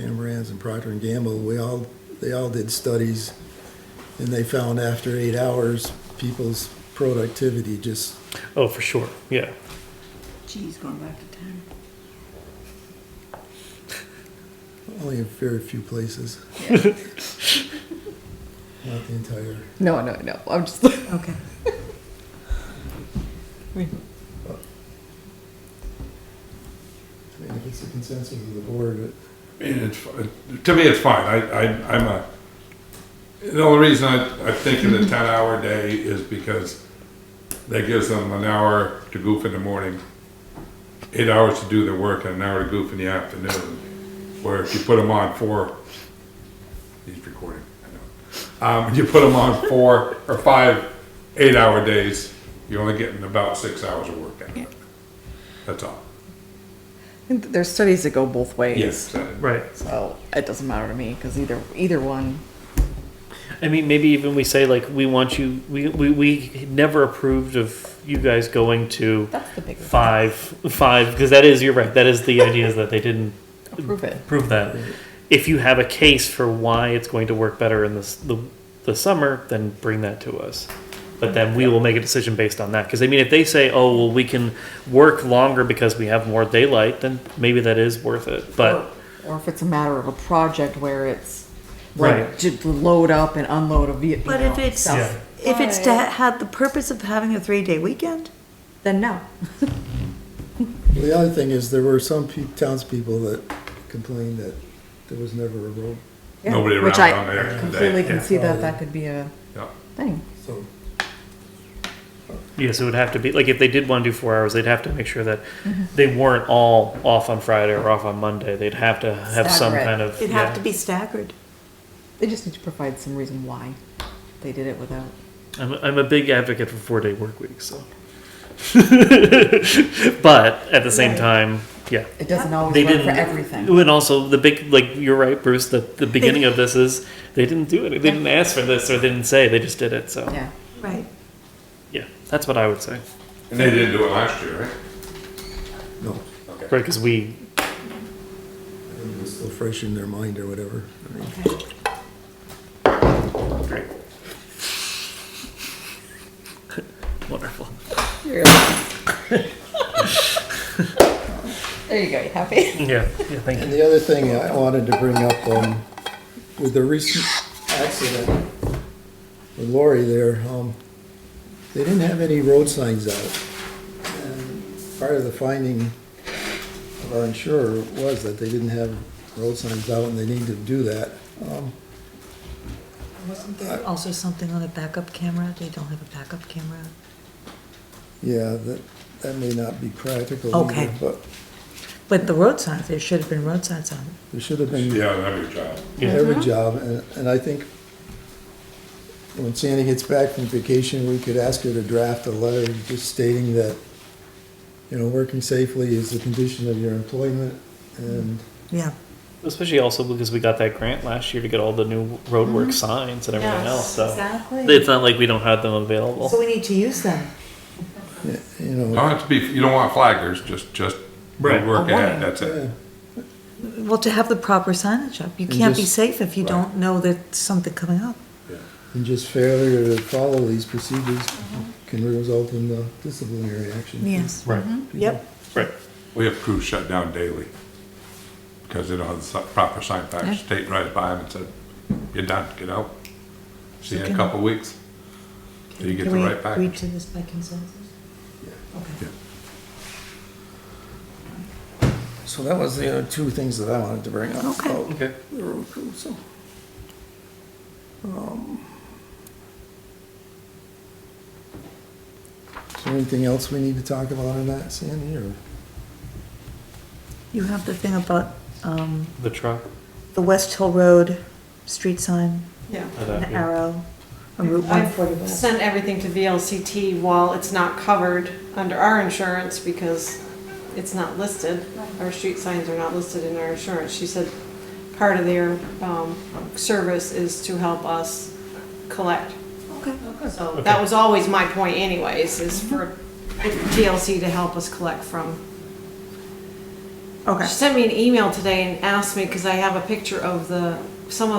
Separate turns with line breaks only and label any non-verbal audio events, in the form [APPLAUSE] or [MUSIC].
Tambrands and Procter and Gamble, we all, they all did studies, and they found after eight hours, people's productivity just,
Oh, for sure. Yeah.
Geez, going back to ten.
only in very few places. Not the entire,
No, no, no. I'm just. [LAUGHS]
Okay.
I mean, if it's the consensus of the board, it-
I mean, it's, to me, it's fine. I, I, I'm a, the only reason I, I think of the
Mm-hmm.
ten hour day is because that gives them an hour to goof in the morning, eight hours to do their work and an hour to goof in the afternoon. Where if you put them on four, he's recording, I know. Um, you put them on four or five eight hour days, you're only getting about six hours of work out of it. That's all.
There's studies that go both ways.
So-
Right.
So it doesn't matter to me because either either one.
I mean, maybe even we say like we want you. We we, we never approved of you guys going to
That's the bigger.
five five because that is you're right. That is the idea is that they didn't
Approve it.
prove that. If you have a case for why it's going to work better in this the the summer, then bring that to us. But then we will make a decision based on that. Because I mean, if they say, "Oh, well, we can work longer because we have more daylight," then maybe that is worth it. But
or, or if it's a matter of a project where it's like
Right.
to load up and unload a vehicle.
But if it's,
Yeah.
if it's to ha- have the purpose of having a three-day weekend,
then no.
Well, The other thing is, there were some pe- townspeople that complained that there was never a road,
Yeah,
Nobody
Which
around
I
on there
completely
today.
can
Yeah.
see that that could be a
Yeah.
thing.
so
Yes, it would have to be, like, if they did want to do four hours, they'd have to make sure that
Mm-hmm.
they weren't all off on Friday or off on Monday. They'd have to have some
Stagger it.
kind of.
it'd
yeah.
have to be staggered.
They just need to provide some reason why they did it without.
I'm, I'm a big advocate for four day work weeks, so. [LAUGHS] but at the same
Right.
time, yeah.
It doesn't always
They
work
didn't.
for everything.
And also, the big, like, you're right, Bruce, the, the beginning of this is they didn't do it. They didn't ask for this or they didn't say, they just did it, so.
Yeah.
Right.
Yeah, that's what I would say.
And they didn't do it last year, right?
no,
Right, because we,
it was still fresh in their mind or whatever. I mean,
great. [LAUGHS] Wonderful.
There [LAUGHS] you go. You happy?
Yeah, yeah, thank you.
And the other thing I wanted to bring up, um, with the recent accident with Lori there, um, they didn't have any road signs out. And Part of the finding of our insurer was that they didn't have road signs out and they need to do that. Um,
Wasn't there also something on a backup camera? They don't have a backup camera?
yeah, that, that may not be practical
Okay.
either, but
But the road signs, there should have been road signs on it.
there should have been
Yeah, every job.
Yeah.
every job, and, and I think when Sandy gets back from vacation, we could ask her to draft a letter just stating that, you know, working safely is the condition of your employment, and,
Yeah.
Especially also because we got that grant last year to get all the new roadwork signs and everything else. So it's
Mm-hmm. Exactly.
not like we don't have them available.
So we need to use them.
you
You don't
know.
have to be, you don't want flaggers, just, just
Right.
work
A warning.
ahead, that's it.
yeah,
Well, to have the proper signage up. You can't be
just-
safe if you don't know that something coming up.
Mm-hmm.
And just failure to follow these procedures can result in uh, disciplinary action. for
Yes.
Right. Mm-hmm.
people.
Yep.
Right.
We have crews shut down daily because they don't have the si- proper sign
Yeah.
package. State right by them and said, you're done, get out. See you in
Okay.
a couple weeks. So you get
Can
the
we
right
Agree
package.
to this by consensus? Okay.
So that was the other two things that I wanted to bring up. Oh,
Okay.
about
Okay.
The road crew, so. um, Is there anything else we need to talk about on that, Sandy, or?
You have the thing about, um,
The truck.
the West Hill Road street sign,
Yeah.
uh,
an
that, yeah.
arrow, on Route one
I've
forty-one.
sent everything to VLCT while it's not covered under our insurance because it's not listed. Our street signs are not listed in our insurance. She said part of their, um, service is to help us collect. So that was always my point anyways, is for VLC to help us collect from
Okay.
She sent me an email today and asked me, because I have a picture of the, some of